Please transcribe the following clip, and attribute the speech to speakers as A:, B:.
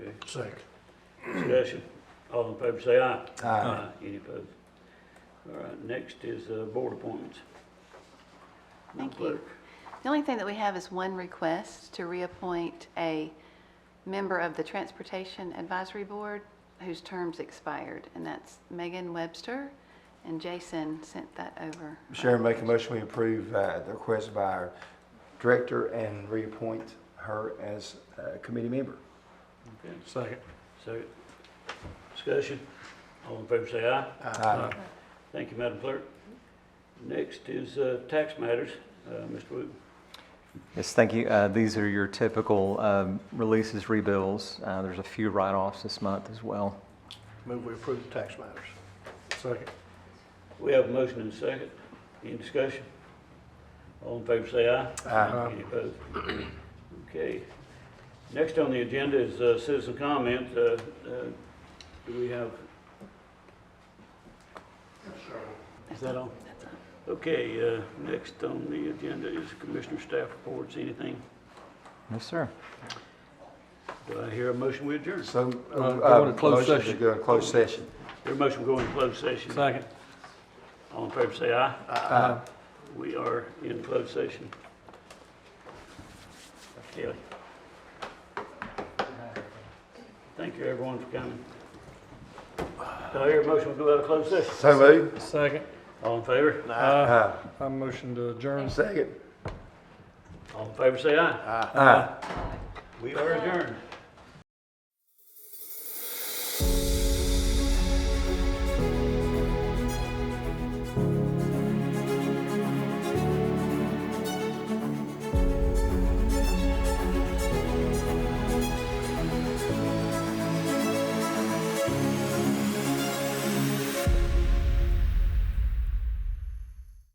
A: Second.
B: Discussion. All in favor say aye.
C: Aye.
B: Any opposed? All right, next is uh, board appointments. Madam
D: Thank you.
B: Clerk.
D: The only thing that we have is one request to reappoint a member of the Transportation Advisory Board whose terms expired, and that's Megan Webster, and Jason sent that over.
C: Sharon, make a motion, we approve uh, the request by our director and reappoint her as a committee member.
B: Okay,
A: Second.
B: so, discussion. All in favor say aye.
C: Aye.
B: Thank you, Madam Clerk. Next is uh, tax matters. Uh, Mr. Wood.
E: Yes, thank you. Uh, These are your typical um, releases, rebills. Uh, There's a few write-offs this month as well.
A: Move we approve the tax matters. Second.
B: We have a motion and a second. Any discussion? All in favor say aye.
C: Aye.
A: Uh-huh.
B: Any opposed? Okay. Next on the agenda is uh, citizen comment. Uh, uh, Do we have? Is that on?
D: That's all.
B: Okay, uh, next on the agenda is Commissioner Staff Reports. Anything?
E: Yes, sir.
B: Do I hear a motion we adjourn?
C: So.
A: Uh, go into closed
C: motion to
A: session.
C: Go in closed session.
B: Your motion go in closed session.
A: Second.
B: All in favor say aye. Aye. We are in closed session. Kelly. Thank you, everyone, for coming. Do I hear a motion to go out of closed session?
C: So moved.
A: Second.
B: All in favor?
A: Uh,
C: Aye.
A: I motion to adjourn.
C: Second.
B: All in favor say aye.
C: Aye.
B: We are adjourned.